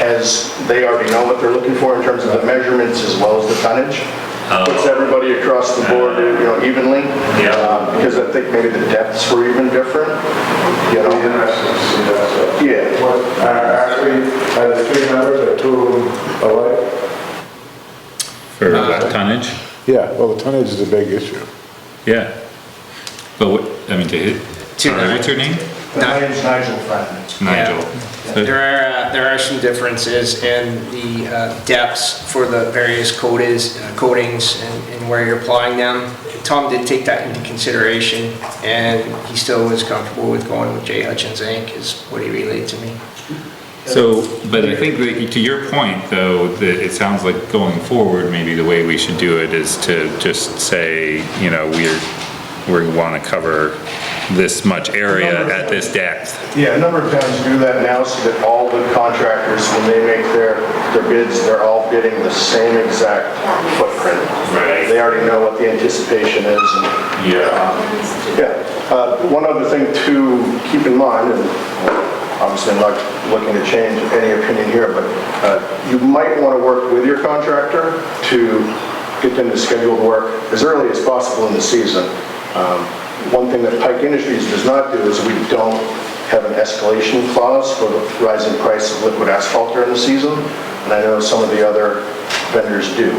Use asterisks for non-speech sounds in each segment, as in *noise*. has, they already know what they're looking for in terms of the measurements as well as the tonnage. Puts everybody across the board, you know, evenly. Oh. Yeah. Uh, Because I think maybe the depths were even different, you It'll be know? interesting to see that. so. Yeah. What, are are we, are the three members, are two of them alike? For Uh, what, tonnage? Yeah, well, the tonnage is a big issue. Yeah. But what, I mean, to hit, Two sorry, what's your name? My name's Nigel Fratton. Nigel. There are, uh, there are some differences in the uh, depths for the various coatings, uh, coatings and and where you're applying them. Tom did take that into consideration, and he still was comfortable with going with J. Hutchins Inc., is what he relayed to me. So, but I think that to your point though, that it sounds like going forward, maybe the way we should do it is to just say, you know, we're, we want to cover this much area at this depth. Yeah, a number of towns do that now so that all the contractors, when they make their, their bids, they're all bidding the same exact footprint. Right. They already know what the anticipation is and Yeah. yeah, uh, one other thing to keep in mind, and obviously I'm not looking to change any opinion here, but uh, you might want to work with your contractor to get them to schedule work as early as possible in the season. Um, One thing that Pike Industries does not do is we don't have an escalation clause for the rising price of liquid asphalt during the season, and I know some of the other vendors do.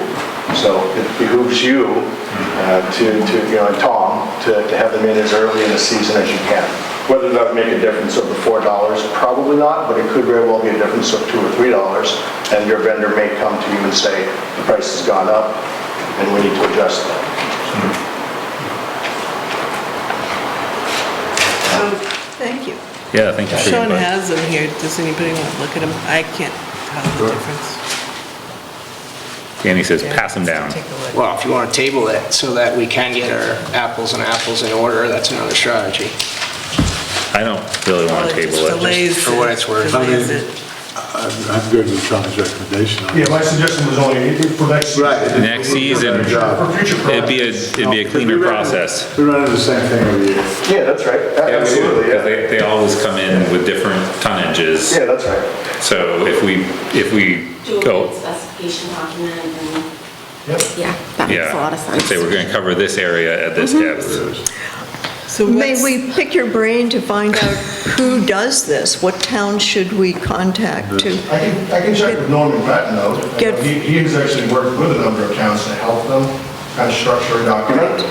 So it behooves you uh, to, to, you know, and Tom, to, to have them in as early in the season as you can. Whether that make a difference of the four dollars, probably not, but it could very well be a difference of two or three dollars, and your vendor may come to you and say, the price has gone up, and we need to adjust that. So, Um, Thank you. Yeah, thank you for your Sean advice. has them here. Does anybody want to look at them? I can't tell the difference. Danny says, pass them down. Take a look. Well, if you want to table it so that we can get our apples and apples in order, that's another strategy. I don't really want Well, to it table just it. delays for what it's worth. delays it. I'm, I'm good with Sean's recommendation. on Yeah, this. my suggestion was only for next season. Right. Next season, For It'd future it'd be a, projects. it'd be a cleaner process. We run into the same thing every year. Yeah, that's right. Absolutely, Because yeah. they, they always come in with different tonnages. Yeah, that's right. So if we, if we do a go, written specification document and, Yep. yeah, that makes yeah. a lot of Mm-hmm. sense. Say we're gonna cover this area at this depth. So May what's, we pick your brain to find out who does this? What town should we contact to? I can, I can check with Norman Patton though. Good. He, he has actually worked with a number of towns to help them kind of structure a document.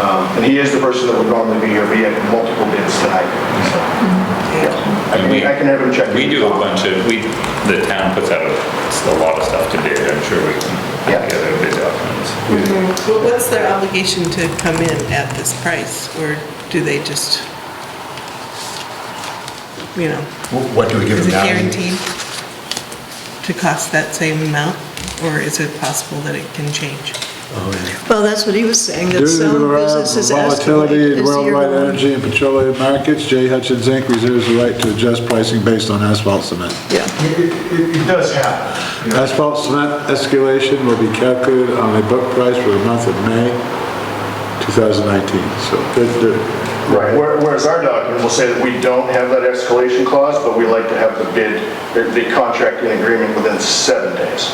Um, And he is the person that would normally be here, but he had multiple bids tonight, so. I can, I can have him check. We do a bunch of, we, the town puts out a lot of stuff to bid, I'm sure we Yeah. can get a bid documents. but what's their obligation to come in at this price? Or do they just, you know, What do we give is them it now? guaranteed to cost that same amount? Or is it possible that it can change? Well, that's what he was saying, Due that to the some businesses escalate. volatility in as the year worldwide goes on. energy and petroleum markets, J. Hutchins Inc. reserves the right to adjust pricing based on asphalt cement. Yeah, It, it, it does happen. you know. Asphalt cement escalation will be calculated on a book price for the month of May 2019, so. they're- they're- Right, where- whereas our document will say that we don't have that escalation clause, but we like to have the bid, the- the contract in agreement within seven days.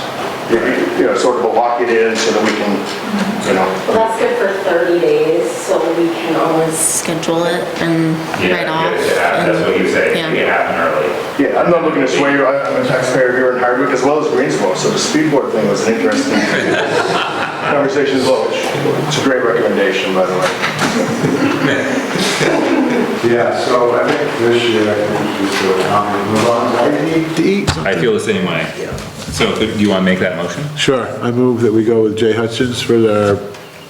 You- you- You know, sort of a lock it in so that we can, you know, Well, that's good for 30 days, so we can always schedule it and write off. That's what and- you say, yeah. it happened early. yeah, I'm not looking to sway you, I- I'm a taxpayer here in Hardwick as well as Greensboro, so the speed board thing was an *laughs* interesting conversation as well. which- It's a great recommendation, by the way. Yeah, so I think this year, I think we should do a comment, move on. I need To eat I feel the same way. So could- do you wanna make that motion? Sure, I move that we go with Jay Hutchins for the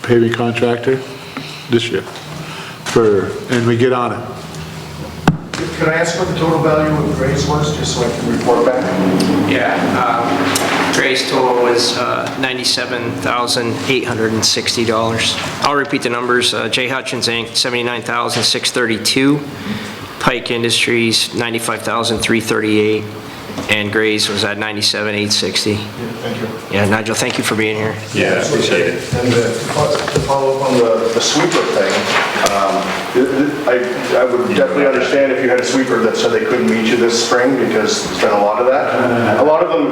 paving contractor this year, for, and we get on it. Can I ask what the total value of grades was, just so I can report back? Yeah, um, Trey's total was uh, $97,860. I'll repeat the numbers. Uh, J. Hutchins Inc., $79,632. Pike Industries, $95,338. and Gray's was at 97,860. Thank you. Yeah, Nigel, thank you for being here. Yeah, I appreciate it. And uh, to fo- to follow up on the the sweeper thing, um, th- th- I I would definitely understand if you had a sweeper that said they couldn't meet you this spring, because there's been a lot of that. A lot of them